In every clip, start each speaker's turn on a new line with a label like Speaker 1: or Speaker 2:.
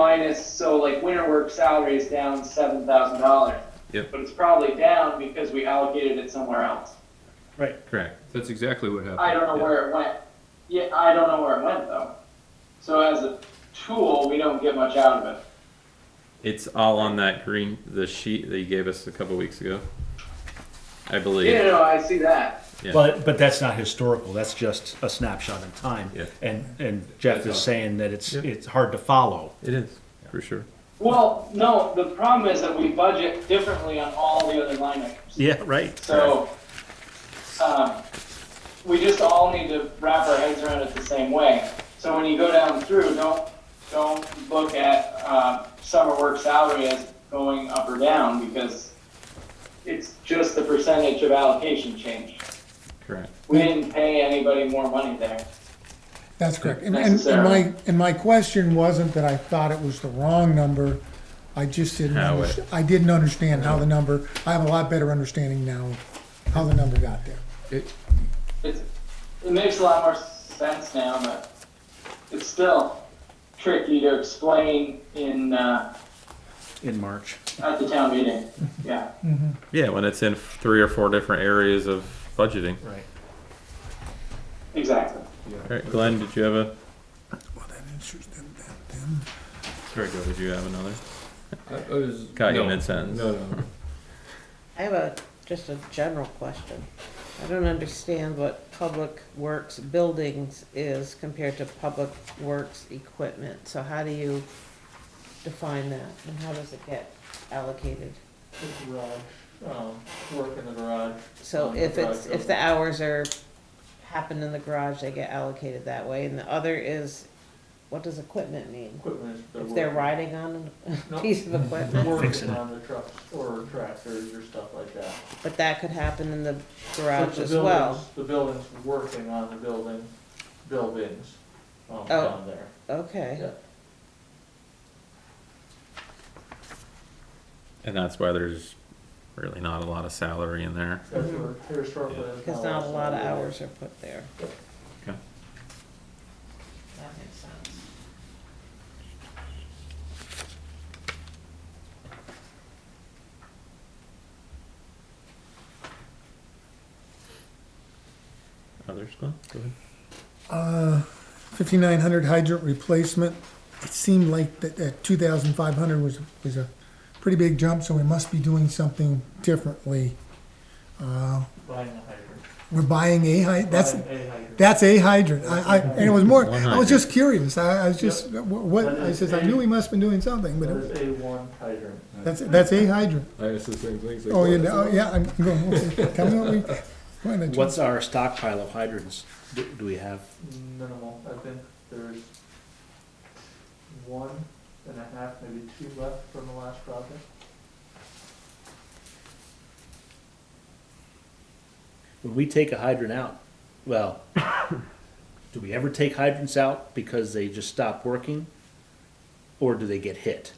Speaker 1: minus, so like winter work salary is down seven thousand dollars.
Speaker 2: Yep.
Speaker 1: But it's probably down because we allocated it somewhere else.
Speaker 2: Correct. That's exactly what happened.
Speaker 1: I don't know
Speaker 2: Yeah.
Speaker 1: where it went. Yeah, I don't know where it went though. So as a tool, we don't get much out of it.
Speaker 3: It's all on that green, the sheet that you gave us a couple weeks ago. I believe.
Speaker 1: Yeah, no, I see that.
Speaker 3: Yeah.
Speaker 4: But, but that's not historical, that's just a snapshot in time.
Speaker 3: Yeah.
Speaker 4: And, and Jeff is saying that it's,
Speaker 3: Yeah.
Speaker 4: it's hard to follow.
Speaker 3: It is, for sure.
Speaker 1: Well, no, the problem is that we budget differently on all the other line items.
Speaker 4: Yeah, right.
Speaker 1: So, um, we just all need to wrap our heads around it the same way. So when you go down through, don't, don't look at, uh, summer work salary as going up or down because it's just the percentage of allocation change.
Speaker 3: Correct.
Speaker 1: We didn't pay anybody more money there.
Speaker 5: That's correct. And, and, and my,
Speaker 1: Necessarily.
Speaker 5: and my question wasn't that I thought it was the wrong number. I just didn't,
Speaker 3: How
Speaker 5: underst- I didn't understand how the number, I have a lot better understanding now of how the number got there.
Speaker 1: It's, it makes a lot more sense now, but it's still tricky to explain in, uh,
Speaker 4: In March.
Speaker 1: at the town meeting. Yeah.
Speaker 3: Yeah, when it's in three or four different areas of budgeting.
Speaker 4: Right.
Speaker 1: Exactly.
Speaker 3: All right, Glenn, did you have a?
Speaker 5: Well, that answers them, them, them.
Speaker 3: Very good. Did you have another?
Speaker 2: I, I was
Speaker 3: Caught you
Speaker 2: no.
Speaker 3: mid-sentence.
Speaker 2: No, no.
Speaker 6: I have a, just a general question. I don't understand what public works buildings is compared to public works equipment. So how do you define that and how does it get allocated?
Speaker 7: the garage, um, work in the garage.
Speaker 6: So
Speaker 7: Um,
Speaker 6: if
Speaker 7: garage
Speaker 6: it's, if
Speaker 7: building.
Speaker 6: the hours are, happen in the garage, they get allocated that way. And the other is, what does equipment mean?
Speaker 7: Equipment is.
Speaker 6: If they're
Speaker 7: working-
Speaker 6: riding on a
Speaker 7: No.
Speaker 6: piece of
Speaker 7: they're
Speaker 6: equipment,
Speaker 4: Fixing
Speaker 7: Working
Speaker 4: it.
Speaker 7: on the trucks or tractors or stuff like that.
Speaker 6: but that could happen in the
Speaker 7: But
Speaker 6: garage
Speaker 7: the
Speaker 6: as well.
Speaker 7: buildings- The building's working on the building, buildings,
Speaker 6: Oh.
Speaker 7: um, down there.
Speaker 6: Okay.
Speaker 7: Yeah.
Speaker 3: And that's why there's really not a lot of salary in there.
Speaker 7: That's where here historically. there's
Speaker 6: Because not a lot of
Speaker 7: salary.
Speaker 6: hours are put there.
Speaker 3: Okay.
Speaker 6: That makes sense.
Speaker 3: Others, Glenn? Go ahead.
Speaker 5: Uh, 5,900 hydrant replacement. It seemed like that, that 2,500 was, was a pretty big jump, so we must be doing something differently.
Speaker 7: Buying a hydrant.
Speaker 5: We're buying a hy, that's,
Speaker 7: Buying a hydrant.
Speaker 5: that's a hydrant. I, I, and it was more, I was just curious. I, I was
Speaker 7: Yep.
Speaker 5: just, wh- what, I says, I knew we must've been doing something, but
Speaker 7: That
Speaker 5: it-
Speaker 7: is a one hydrant.
Speaker 5: that's, that's a hydrant.
Speaker 2: I asked the same thing. It's like,
Speaker 5: Oh,
Speaker 2: what
Speaker 5: yeah,
Speaker 2: is
Speaker 5: no,
Speaker 2: it?
Speaker 5: yeah, I'm going, okay, tell me what we, why not?
Speaker 4: What's our stockpile of hydrants do, do we have?
Speaker 7: Minimal, I think there's one and a half, maybe two left from the last project.
Speaker 4: When we take a hydrant out, well, do we ever take hydrants out because they just stop working? Or do they get hit?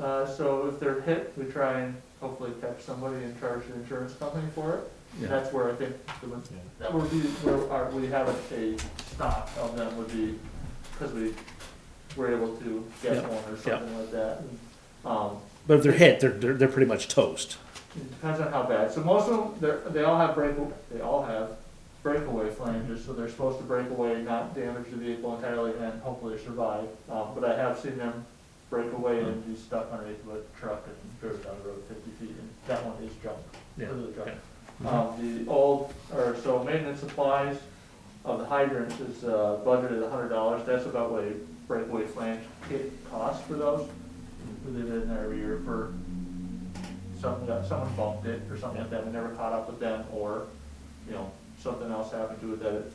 Speaker 7: Uh, so if they're hit, we try and hopefully catch somebody and charge the insurance company for it.
Speaker 4: Yeah.
Speaker 7: That's where I think the, one-
Speaker 2: Yeah.
Speaker 7: that would be where our, we have a stock of them would be, because we were able to
Speaker 4: Yeah.
Speaker 7: get one or something like that. And, Um,
Speaker 4: But if they're hit, they're, they're, they're pretty much toast.
Speaker 7: it depends on how bad. So most of them, they're, they all have break, they all have breakaway flanges, so they're supposed to break away, not damage the vehicle entirely, and hopefully survive. Um, but I have seen them break away and be stuck underneath a truck and driven down the road fifty feet, and that one is junk.
Speaker 4: Yeah,
Speaker 7: completely junk.
Speaker 4: okay.
Speaker 7: Um, the old, or so maintenance supplies of the hydrants is, uh, budgeted a hundred dollars. That's about what a breakaway flange kit costs for those. We leave it in there every year for some, someone bumped it or something like that, we never caught up with them, or, you know, something else happened to it that it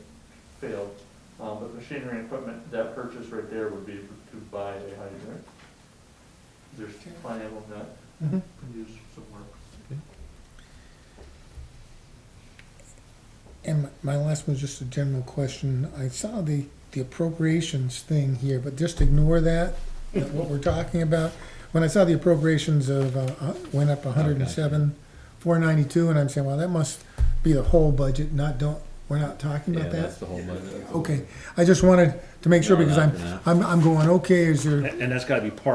Speaker 7: failed. Um, but machinery and equipment, that purchase right there would be to buy a hydrant. There's plenty of them that
Speaker 5: Mhm.
Speaker 7: could use some work.
Speaker 5: And my- my last one's just a general question. I saw the, the appropriations thing here, but just ignore that, that what we're talking about. When I saw the appropriations of, uh, uh, went up hundred and seven, four ninety-two, and I'm saying, well, that must be the whole budget, not, don't, we're not talking
Speaker 3: Yeah,
Speaker 5: about
Speaker 3: that's
Speaker 5: that?
Speaker 3: the whole budget.
Speaker 5: Okay, I just wanted to make sure
Speaker 3: No,
Speaker 5: because
Speaker 3: not
Speaker 5: I'm,
Speaker 3: for that.
Speaker 5: I'm, I'm going, okay, is there
Speaker 4: And and that's gotta be part